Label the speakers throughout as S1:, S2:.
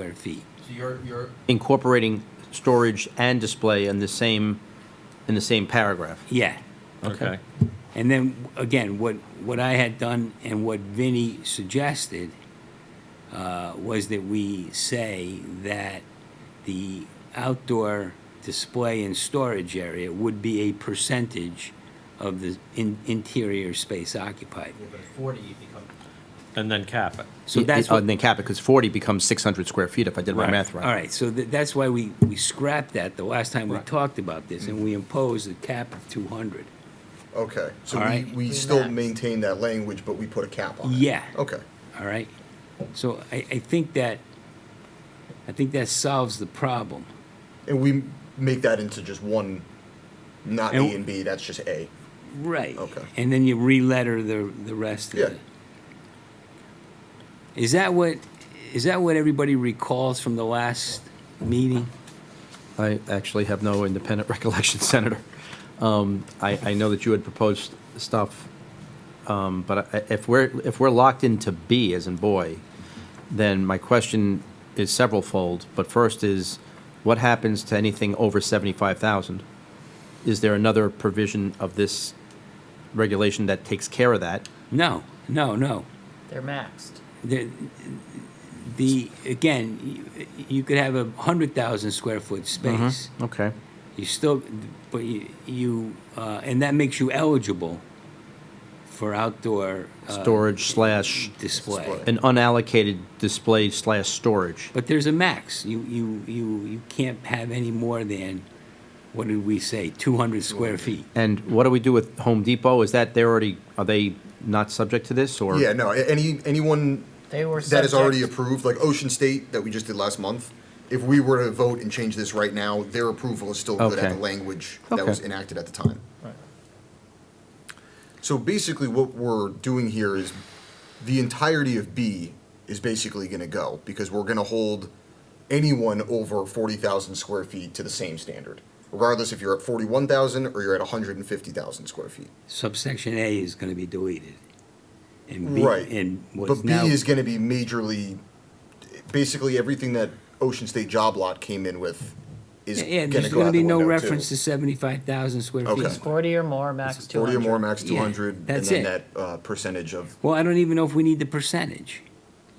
S1: hundred feet.
S2: So you're, you're,
S3: incorporating storage and display in the same, in the same paragraph.
S1: Yeah.
S3: Okay.
S1: And then, again, what, what I had done and what Vinnie suggested uh, was that we say that the outdoor display and storage area would be a percentage of the in- interior space occupied.
S2: yeah, but at forty, you become,
S4: And then cap it.
S1: So that's
S3: Uh,
S1: what,
S3: And then cap it, because 40 becomes 600 square feet if I did my
S4: Right.
S3: math right.
S1: all right, so tha- that's why we, we scrapped that the last time we talked about this, and we imposed a cap of 200.
S5: Okay, so
S1: All
S5: we,
S1: right.
S5: we still
S6: Relax.
S5: maintain that language, but we put a cap on it?
S1: Yeah.
S5: Okay,
S1: All right? So I, I think that, I think that solves the problem.
S5: and we make that into just one, not
S1: And-
S5: A and B, that's just A.
S1: Right.
S5: Okay.
S1: And then you re-letter the, the rest of
S5: Yeah.
S1: it. Is that what, is that what everybody recalls from the last meeting?
S3: I actually have no independent recollection, Senator. Um, I, I know that you had proposed stuff, um, but I- if we're, if we're locked into B as in boy, then my question is severalfold, but first is, what happens to anything over 75,000? Is there another provision of this regulation that takes care of that?
S1: No, no, no.
S6: They're maxed.
S1: The, the, again, you, you could have a hundred thousand square foot
S5: Mm-hmm.
S1: space.
S3: Okay.
S1: You still, but you, you uh, and that makes you eligible for outdoor uh,
S3: Storage slash,
S1: display.
S5: Display.
S3: an unallocated display slash storage.
S1: But there's a max. You, you, you, you can't have any more than, what did we say, 200 square feet?
S3: And what do we do with Home Depot? Is that, they're already, are they not subject to this, or?
S5: Yeah, no, a- any, anyone
S6: They were
S5: that is already
S6: subject-
S5: approved, like Ocean State that we just did last month, if we were to vote and change this right now, their approval is still good at
S3: Okay.
S5: the language that
S3: Okay.
S5: was enacted at the time.
S6: Right.
S5: So basically, what we're doing here is the entirety of B is basically going to go because we're going to hold anyone over 40,000 square feet to the same standard, regardless if you're at 41,000 or you're at 150,000 square feet.
S1: Subsection A is going to be deleted. And B,
S5: right.
S1: and what's
S5: but B
S1: now,
S5: is going to be majorly, basically everything that Ocean State Job Lot came in with is
S1: yeah, yeah,
S5: going
S1: there's
S5: to go
S1: going to
S5: out the
S1: be no
S5: window,
S1: reference
S5: too.
S1: to 75,000 square
S5: Okay.
S1: feet.
S6: Forty or more, max two
S5: 40 or
S6: hundred.
S5: more, max
S1: Yeah,
S5: 200, and
S1: that's
S5: then
S1: it.
S5: that uh, percentage of
S1: Well, I don't even know if we need the percentage.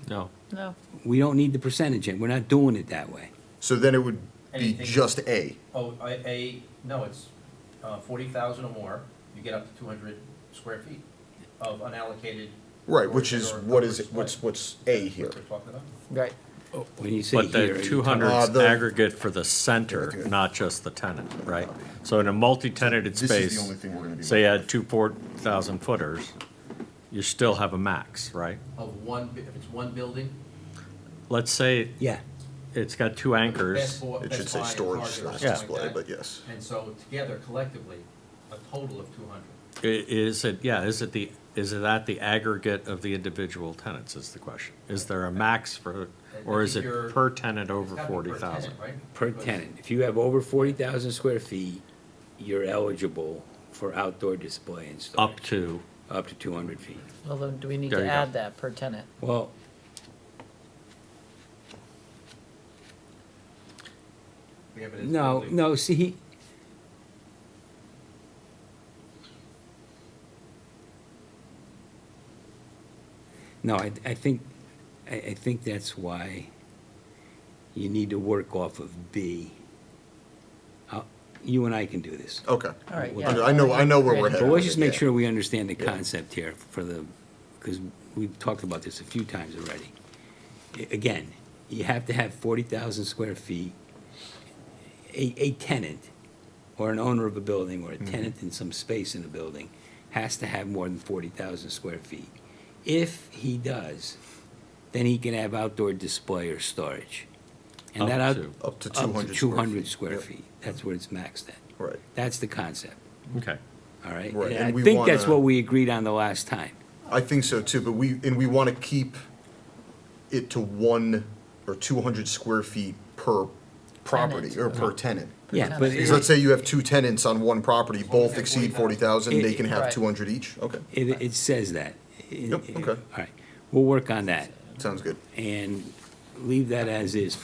S4: No.
S6: No,
S1: We don't need the percentage, and we're not doing it that way.
S5: So then it would be
S2: Anything-
S5: just A.
S2: oh, I, a, no, it's, uh, forty thousand or more, you get up to two hundred square feet of unallocated.
S5: Right, which is
S2: or-
S5: what is,
S2: or-
S5: what's,
S2: right.
S5: what's A here?
S2: What we're talking about?
S6: right.
S1: When you say
S4: But
S1: here,
S4: the
S1: you-
S4: 200
S5: Uh,
S4: is
S5: the-
S4: aggregate for the center, not just the tenant, right? So in a multi-tenanted
S5: This is the
S4: space,
S5: only thing we're gonna be
S4: say you had two 4,000 footers, you still have a max, right?
S2: Of one, bu- if it's one building,
S4: Let's say
S1: Yeah,
S4: it's got two
S2: Best
S4: anchors.
S2: Bo-
S5: It
S2: Best
S5: should say
S2: Buy and
S5: storage
S2: Target or
S5: slash
S2: something like
S5: display,
S2: that.
S5: but yes.
S2: And so together collectively, a total of two hundred.
S4: I- Is it, yeah, is it the, is it at the aggregate of the individual tenants is the question? Is there a max for, or is it
S2: You're-
S4: per tenant over 40,000?
S2: right?
S1: per
S2: Because-
S1: tenant. If you have over 40,000 square feet, you're eligible for outdoor display and storage.
S4: Up to,
S1: Up to 200 feet.
S6: Well, then, do we need
S4: There
S6: to
S4: you go.
S6: add that per tenant?
S1: Well,
S2: Yeah, but it's
S1: no,
S2: building.
S1: no, see, he- No, I, I think, I, I think that's why you need to work off of B. I'll- You and I can do this.
S5: Okay.
S6: All right,
S5: Well,
S6: yeah.
S5: I know- I know where we're
S6: Right.
S5: headed.
S1: But let's just make
S5: Yeah.
S1: sure we understand the concept here for the, because we've talked about this a few times already. A- Again, you have to have forty thousand square feet. A, a tenant, or an owner of a building,
S5: Mm-hmm.
S1: or a tenant in some space in a building, has to have more than forty thousand square feet. If he does, then he can have outdoor display or storage. And
S4: Up
S1: that out-
S4: to.
S5: Up to
S1: Up
S5: 200
S1: to
S5: square
S1: two hundred
S5: feet.
S1: square
S5: Yep.
S1: feet, that's where it's maxed at.
S5: Right.
S1: That's the concept.
S4: okay.
S1: All right,
S5: Right,
S1: and
S5: and
S1: I
S5: we
S1: think that's
S5: wanna-
S1: what we agreed on the last time.
S5: I think so too, but we, and we want to keep it to one or 200 square feet per property or per tenant.
S1: Yeah, but
S5: Because
S1: it,
S5: let's say you have two tenants on one property, both
S2: have 40,000.
S5: exceed 40,000, they can have
S6: Right.
S5: 200 each? Okay,
S1: it, it says that.
S5: Yep, okay.
S1: All right, we'll work on that
S5: sounds good.
S1: and leave that as is